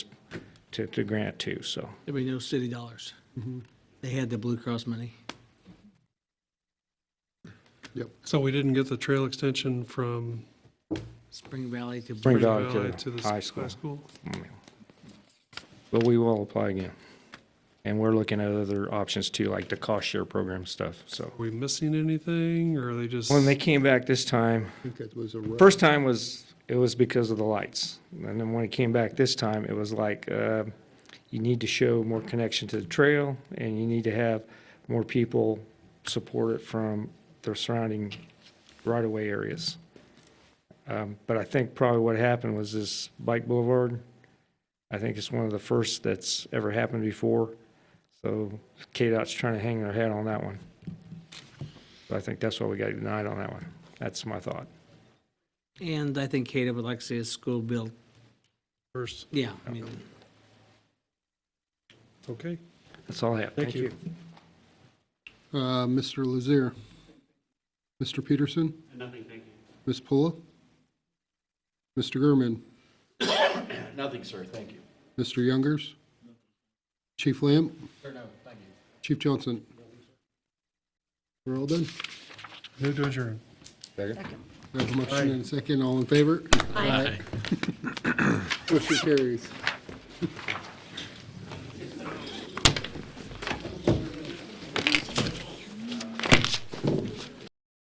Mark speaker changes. Speaker 1: to, to grant to, so.
Speaker 2: There'd be no city dollars.
Speaker 1: Mm-hmm.
Speaker 2: They had the Blue Cross money.
Speaker 3: So we didn't get the trail extension from
Speaker 2: Spring Valley to.
Speaker 1: Spring
Speaker 3: Spring
Speaker 1: Valley
Speaker 3: Valley to the
Speaker 1: high
Speaker 3: s-
Speaker 1: school.
Speaker 3: high school?
Speaker 1: But we will apply again. And we're looking at other options too, like the cost share program stuff, so.
Speaker 3: Are we missing anything, or are they just?
Speaker 1: When they came back this time,
Speaker 4: I think that was a rough.
Speaker 1: First time was, it was because of the lights. And then when it came back this time, it was like, uh, you need to show more connection to the trail and you need to have more people support it from their surrounding right-of-way areas. Um, But I think probably what happened was this bike boulevard, I think it's one of the first that's ever happened before. So KDOT's trying to hang their hat on that one. But I think that's why we got denied on that one. That's my thought.
Speaker 2: And I think Kata would like to see a school built.
Speaker 3: First,
Speaker 2: Yeah, I mean,
Speaker 3: okay.
Speaker 1: That's all I have.
Speaker 3: Thank
Speaker 1: Thank you.
Speaker 4: Uh, Mr. Lazier. Mr. Peterson? Nothing, thank you. Ms. Pula? Mr. Gurman?
Speaker 5: Nothing, sir, thank you.
Speaker 4: Mr. Youngers? Chief Lamb? Chief Johnson? We're all done.
Speaker 3: Move to adjourn.
Speaker 4: We have a motion and a second. All in favor? Aye. Motion carries.